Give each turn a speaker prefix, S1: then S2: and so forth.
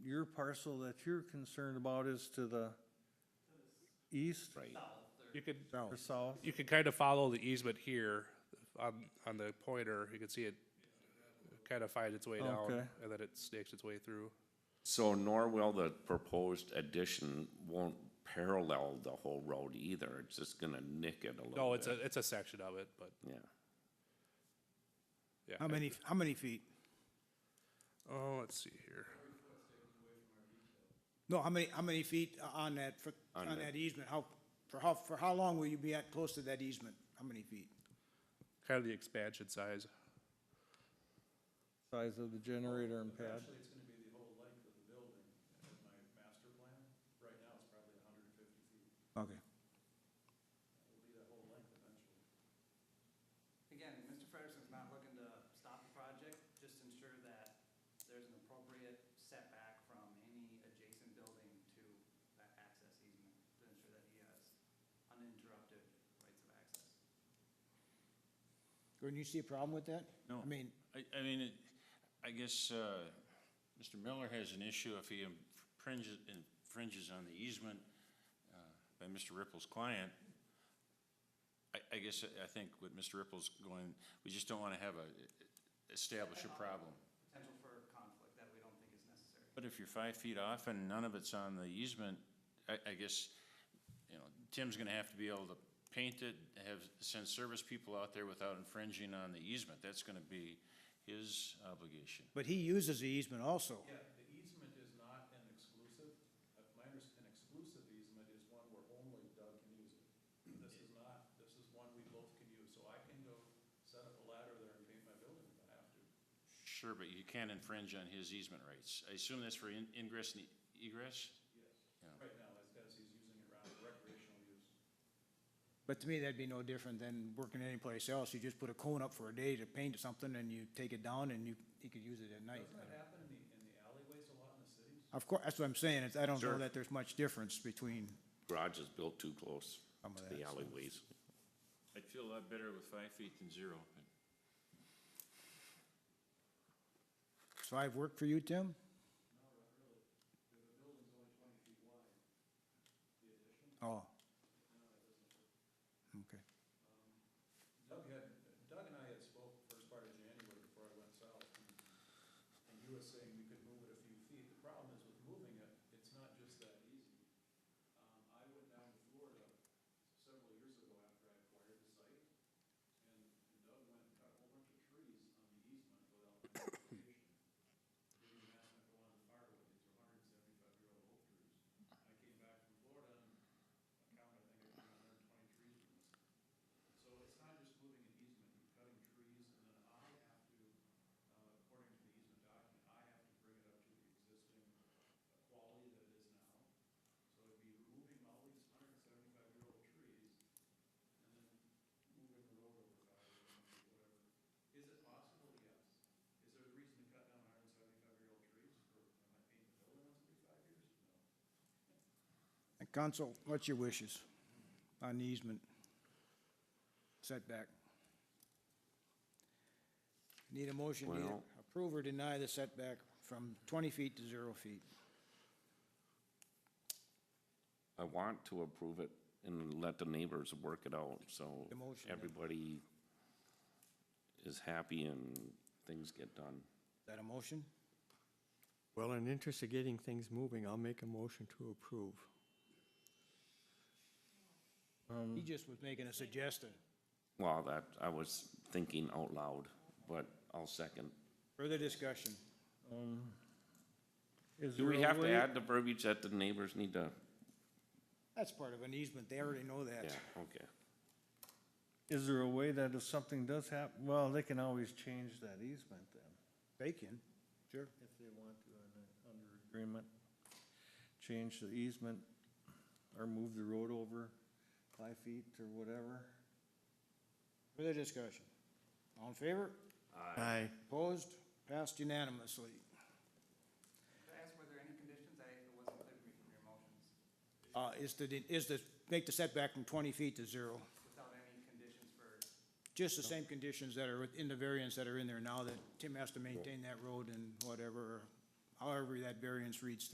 S1: your parcel that you're concerned about is to the east
S2: Right. You could,
S1: or south?
S2: you could kind of follow the easement here on, on the pointer. You can see it kind of find its way down
S1: Okay.
S2: and then it snakes its way through.
S3: So nor will the proposed addition won't parallel the whole road either, it's just gonna nick it a little bit.
S2: No, it's a, it's a section of it, but
S3: Yeah,
S2: yeah.
S4: How many, how many feet?
S2: Oh, let's see here.
S4: No, how many, how many feet o- on that, for-
S3: On
S4: on
S3: the-
S4: that easement? How, for how, for how long will you be at, close to that easement? How many feet?
S2: Kind of the expansion size.
S1: Size of the generator and pad?
S5: Actually, it's gonna be the whole length of the building in my master plan. Right now, it's probably hundred and fifty feet.
S4: Okay.
S5: It'll be the whole length eventually.
S6: Again, Mr. Frederickson's not looking to stop the project, just ensure that there's an appropriate setback from any adjacent building to that access easement, to ensure that he has uninterrupted rights of access.
S4: Gordon, you see a problem with that?
S7: No.
S4: I mean,
S7: I, I mean, it, I guess, uh, Mr. Miller has an issue if he infringes, infringes on the easement, uh, by Mr. Ripple's client. I, I guess, I think what Mr. Ripple's going, we just don't wanna have a, establish a problem.
S6: Potential for conflict that we don't think is necessary.
S7: But if you're five feet off and none of it's on the easement, I, I guess, you know, Tim's gonna have to be able to paint it, have, send service people out there without infringing on the easement. That's gonna be his obligation.
S4: but he uses the easement also.
S5: Yeah, the easement is not an exclusive, uh, my underst an exclusive easement is one where only Doug can use it. This is not, this is one we both can use, so I can go set up a ladder there and paint my building if I have to.
S7: Sure, but you can't infringe on his easement rights. I assume that's for in- ingress and egress?
S5: Right now, as, as he's using it around recreational use.
S4: But to me, that'd be no different than working anyplace else. You just put a cone up for a day to paint something and you take it down and you, you could use it at night.
S5: Doesn't that happen in the, in the alleyways a lot in the cities?
S4: Of course, that's what I'm saying. It's, I don't know
S3: Sure.
S4: that there's much difference between,
S3: garage is built too close
S4: Some of
S3: to the
S4: that, so-
S3: alleyways.
S7: I'd feel a lot better with five feet than zero.
S4: does five work for you, Tim? Oh. Okay.
S5: Doug had, Doug and I had spoke first part of January before I went south, and, and you were saying we could move it a few feet. The problem is with moving it, it's not just that easy. Um, I went down to Florida several years ago after I acquired the site, and Doug went and cut a whole bunch of trees on the easement without my notification. Didn't even ask me to go on the firewood, these are hundred and seventy-five year old oak trees. I came back from Florida and I counted, I think it was hundred and twenty trees from this. So it's not just moving an easement, you're cutting trees, and then I have to, uh, according to the easement document, I have to bring it up to the existing uh, quality that it is now. So it'd be removing all these hundred and seventy-five year old trees, and then moving the road over five or whatever. Is it possible? Yes. Is there a reason to cut down hundred and seventy-five year old trees, or am I painting the building once every five years? No.
S4: Council, what's your wishes on the easement setback? Need a motion to either
S3: Well-
S4: approve or deny the setback from twenty feet to zero feet.
S3: I want to approve it and let the neighbors work it out, so
S4: The motion, yeah.
S3: everybody is happy and things get done.
S4: Is that a motion?
S8: Well, in interest of getting things moving, I'll make a motion to approve.
S3: Hmm.
S1: Um,
S4: He just was making a suggestion.
S3: Well, that, I was thinking out loud, but I'll second.
S4: Further discussion.
S1: um, Is
S3: Do we
S1: there a
S3: have to
S1: way-
S3: add the verbiage that the neighbors need to,
S4: That's part of an easement. They already know
S3: yeah,
S4: that.
S3: okay.
S1: Is there a way that if something does happen, well, they can always change that easement then,
S4: They can. Sure.
S1: if they want to, and, uh, under agreement. Change the easement or move the road over five feet or whatever.
S4: Further discussion. All in favor?
S8: Aye.
S4: Opposed? Passed unanimously.
S6: Could I ask, were there any conditions? I, it wasn't clear to me from your motions,
S4: Uh, is to, is to make the setback from twenty feet to zero.
S6: without any conditions for
S4: Just the same conditions that are in the variants that are in there now, that Tim has to maintain that road and whatever, however that variance reads